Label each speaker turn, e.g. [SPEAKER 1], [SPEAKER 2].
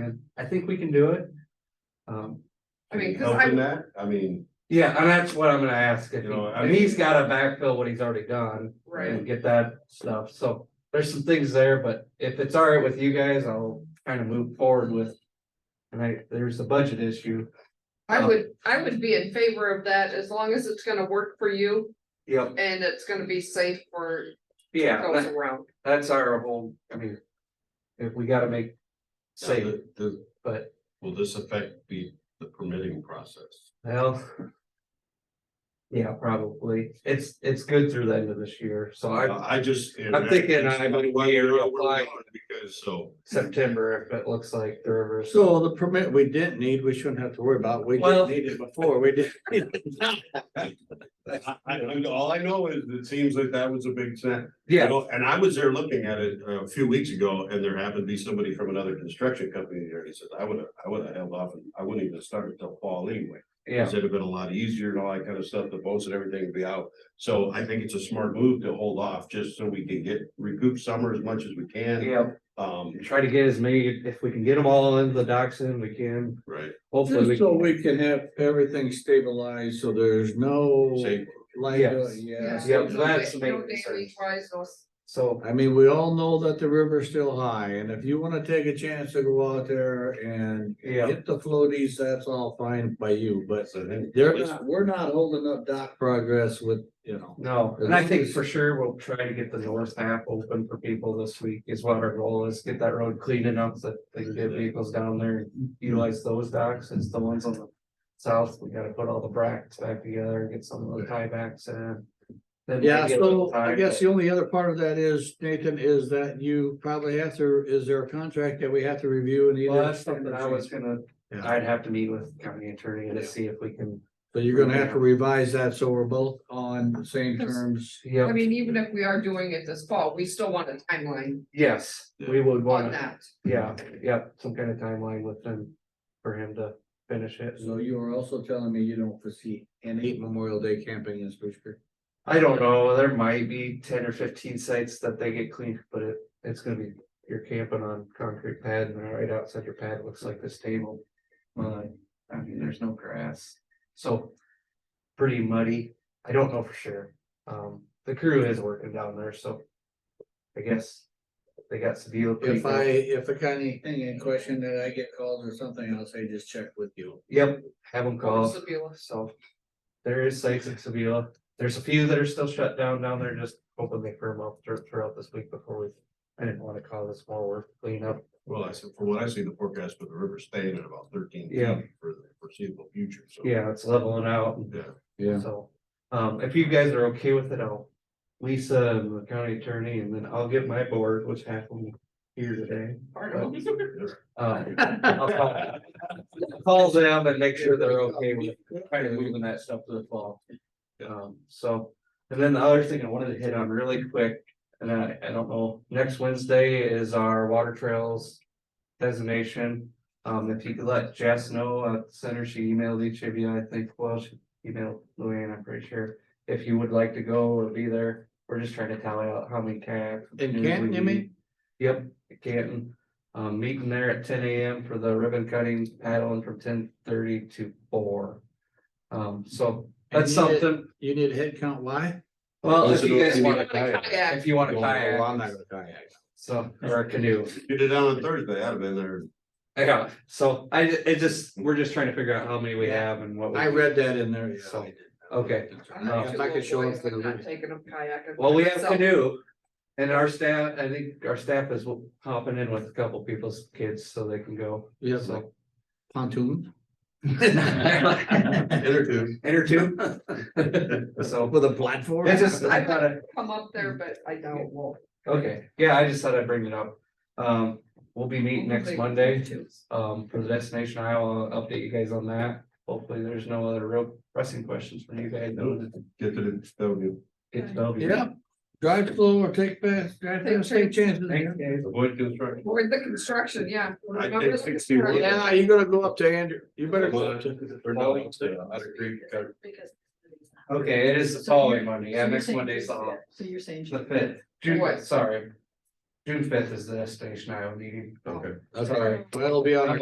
[SPEAKER 1] and I think we can do it. Um,
[SPEAKER 2] I mean, cause
[SPEAKER 3] Helping
[SPEAKER 2] I,
[SPEAKER 3] that, I mean,
[SPEAKER 1] yeah, and that's what I'm gonna ask, if
[SPEAKER 3] You know, I
[SPEAKER 1] he- if he's gotta backfill what he's already done
[SPEAKER 2] right,
[SPEAKER 1] and get that stuff, so. There's some things there, but if it's all right with you guys, I'll kind of move forward with. And I, there's a budget issue.
[SPEAKER 2] I would, I would be in favor of that as long as it's gonna work for you
[SPEAKER 1] Yep.
[SPEAKER 2] and it's gonna be safe for
[SPEAKER 1] Yeah,
[SPEAKER 2] those
[SPEAKER 1] that-
[SPEAKER 2] around.
[SPEAKER 1] that's our whole, I mean. If we gotta make.
[SPEAKER 3] now
[SPEAKER 1] Save it,
[SPEAKER 3] the- the-
[SPEAKER 1] but-
[SPEAKER 3] Will this affect the, the permitting process?
[SPEAKER 1] well. Yeah, probably, it's, it's good through the end of this year, so I.
[SPEAKER 3] I just.
[SPEAKER 1] I'm thinking I might
[SPEAKER 3] Why
[SPEAKER 1] be
[SPEAKER 3] we're
[SPEAKER 1] able to
[SPEAKER 3] not where we
[SPEAKER 1] apply.
[SPEAKER 3] are, Because so,
[SPEAKER 1] September if it looks like the river's.
[SPEAKER 4] So the permit we didn't need, we shouldn't have to worry about. We
[SPEAKER 1] Well-
[SPEAKER 4] didn't need it before. We did.
[SPEAKER 3] I, I, I- all I know is it seems like that was a big snap. You
[SPEAKER 1] Yeah,
[SPEAKER 3] know, And I was there looking at it uh, a few weeks ago and there happened to be somebody from another construction company there. He said, I would have, I would have held off and I wouldn't even start until fall anyway.
[SPEAKER 1] yeah,
[SPEAKER 3] Because it'd have been a lot easier and all that kind of stuff, the boats and everything would be out. So I think it's a smart move to hold off just so we can get recoup summer as much as we can.
[SPEAKER 1] yeah,
[SPEAKER 3] Um,
[SPEAKER 1] try to get as many, if we can get them all into the docks in, we can,
[SPEAKER 3] right,
[SPEAKER 1] hopefully we.
[SPEAKER 4] Just so we can have everything stabilized, so there's no.
[SPEAKER 3] same,
[SPEAKER 4] liability, yeah.
[SPEAKER 1] Yeah.
[SPEAKER 2] No
[SPEAKER 1] Yep, that's
[SPEAKER 2] da-
[SPEAKER 1] the main
[SPEAKER 2] no
[SPEAKER 1] concern.
[SPEAKER 2] daily tries, no s-
[SPEAKER 1] So,
[SPEAKER 4] I mean, we all know that the river's still high, and if you wanna take a chance to go out there and
[SPEAKER 1] yeah,
[SPEAKER 4] hit the floaties, that's all fine by you, but
[SPEAKER 3] that's the thing.
[SPEAKER 4] they're not, we're not holding up dock progress with, you know.
[SPEAKER 1] no, and I think for sure we'll try to get the north half open for people this week is what our goal is, get that road clean enough so that they can get vehicles down there. and Utilize those docks, it's the ones on the south, we gotta put all the brackets back together and get some of the tiebacks in. Then
[SPEAKER 4] Yeah,
[SPEAKER 1] maybe a little
[SPEAKER 4] so I
[SPEAKER 1] time,
[SPEAKER 4] guess
[SPEAKER 1] but-
[SPEAKER 4] the only other part of that is, Nathan, is that you probably have to, is there a contract that we have to review and either?
[SPEAKER 1] Well, that's something I was gonna,
[SPEAKER 4] Yeah.
[SPEAKER 1] I'd have to meet with county attorney to see if we can,
[SPEAKER 4] So you're gonna have to revise that, so we're both on the same terms.
[SPEAKER 2] I
[SPEAKER 1] yeah,
[SPEAKER 2] mean, even if we are doing it this fall, we still want a timeline
[SPEAKER 1] yes, we would
[SPEAKER 2] on
[SPEAKER 1] want,
[SPEAKER 2] that.
[SPEAKER 1] yeah, yeah, some kind of timeline with him. For him to finish it,
[SPEAKER 4] So you are also telling me you don't foresee any Memorial Day camping in Spruce
[SPEAKER 1] I don't know, there might be ten or fifteen sites that they get cleaned, but it, it's gonna be. You're camping on concrete pad and right outside your pad looks like this table. Uh, I mean, there's no grass, so. Pretty muddy, I don't know for sure, um, the crew is working down there, so. I guess. They got some deal.
[SPEAKER 4] If I, if I got anything in question that I get called or something, I'll say just check with you.
[SPEAKER 1] Yep, have them call,
[SPEAKER 2] Sebula.
[SPEAKER 1] so. There is sites in Sevilla, there's a few that are still shut down down there, just hoping they firm up through- throughout this week before we. I didn't wanna call this more work cleanup,
[SPEAKER 3] Well, I said, from what I see, the forecast for the river staying at about thirteen feet
[SPEAKER 1] Yeah.
[SPEAKER 3] for the foreseeable future, so.
[SPEAKER 1] yeah, it's leveling out, and
[SPEAKER 3] Yeah,
[SPEAKER 4] Yeah.
[SPEAKER 1] so, um, if you guys are okay with it, I'll. Lisa and the county attorney, and then I'll get my board, which happened here today.
[SPEAKER 2] Pardon?
[SPEAKER 1] Um, I'll call- Call them and make sure they're okay with kind of moving that stuff to the fall. Um, so, and then the other thing I wanted to hit on really quick, and I, I don't know, next Wednesday is our water trails. Designation, um, if you could let Jess know, uh, center, she emailed each of you, I think, well, she emailed Luann, I'm pretty sure. If you would like to go or be there, we're just trying to tally out how many tags.
[SPEAKER 4] In Canton, you mean?
[SPEAKER 1] Yep, Canton, um, meeting there at ten AM for the ribbon cutting paddling from ten thirty to four. Um, so that's
[SPEAKER 4] And you did-
[SPEAKER 1] something,
[SPEAKER 4] You need a head count, why?
[SPEAKER 1] well, if
[SPEAKER 3] Listen
[SPEAKER 1] you
[SPEAKER 3] to
[SPEAKER 1] guys
[SPEAKER 3] what
[SPEAKER 1] want,
[SPEAKER 2] Kayak.
[SPEAKER 1] if you want to
[SPEAKER 4] Well, no, I'm not
[SPEAKER 1] kayak,
[SPEAKER 4] gonna kayak.
[SPEAKER 1] so, or a canoe.
[SPEAKER 3] you did it on Thursday, I'd have been there.
[SPEAKER 1] I got, it. so I, ju- it just, we're just trying to figure out how many we
[SPEAKER 4] Yeah.
[SPEAKER 1] have and what. we
[SPEAKER 4] I
[SPEAKER 1] can-
[SPEAKER 4] read that in there, yeah.
[SPEAKER 1] So, okay.
[SPEAKER 2] I'm not
[SPEAKER 1] Uh,
[SPEAKER 4] If I could show
[SPEAKER 2] sure
[SPEAKER 4] up
[SPEAKER 2] if
[SPEAKER 4] for the
[SPEAKER 2] I'm not
[SPEAKER 4] week.
[SPEAKER 2] taking a kayak. I'm
[SPEAKER 1] Well, we
[SPEAKER 2] taking
[SPEAKER 1] have
[SPEAKER 2] myself.
[SPEAKER 1] canoe. And our staff, I think our staff is hopping in with a couple people's kids so they can go,
[SPEAKER 4] You have like
[SPEAKER 1] so.
[SPEAKER 4] pontoon?
[SPEAKER 1] Enter
[SPEAKER 3] There too.
[SPEAKER 1] two. So,
[SPEAKER 4] With a platform?
[SPEAKER 1] it's just, I thought I,
[SPEAKER 2] Come up there, but I doubt it will.
[SPEAKER 1] Okay, yeah, I just thought I'd bring it up. Um, we'll be meeting next Monday, um, for the destination Iowa, I'll update you guys on that. Hopefully, there's no other real pressing questions from you guys. though.
[SPEAKER 3] Get to the, W.
[SPEAKER 1] It's W.
[SPEAKER 4] Yeah, drive slow or take fast, drive
[SPEAKER 2] Take
[SPEAKER 4] fast, take chances.
[SPEAKER 1] Thanks, guys.
[SPEAKER 3] avoid construction.
[SPEAKER 2] Or the construction, yeah.
[SPEAKER 3] I
[SPEAKER 2] Remember
[SPEAKER 3] did
[SPEAKER 2] the
[SPEAKER 3] 61.
[SPEAKER 2] construction?
[SPEAKER 4] Yeah, you gotta go up to Andrew, you better go up to.
[SPEAKER 3] Or no, it's, uh, I'd agree, uh,
[SPEAKER 1] Okay, it is the following Monday, yeah, next Monday's the hol-
[SPEAKER 5] So you're saying.
[SPEAKER 1] the fifth, June,
[SPEAKER 2] What?
[SPEAKER 1] sorry. June fifth is the destination Iowa meeting.
[SPEAKER 3] Okay.
[SPEAKER 4] Okay, well, it'll be on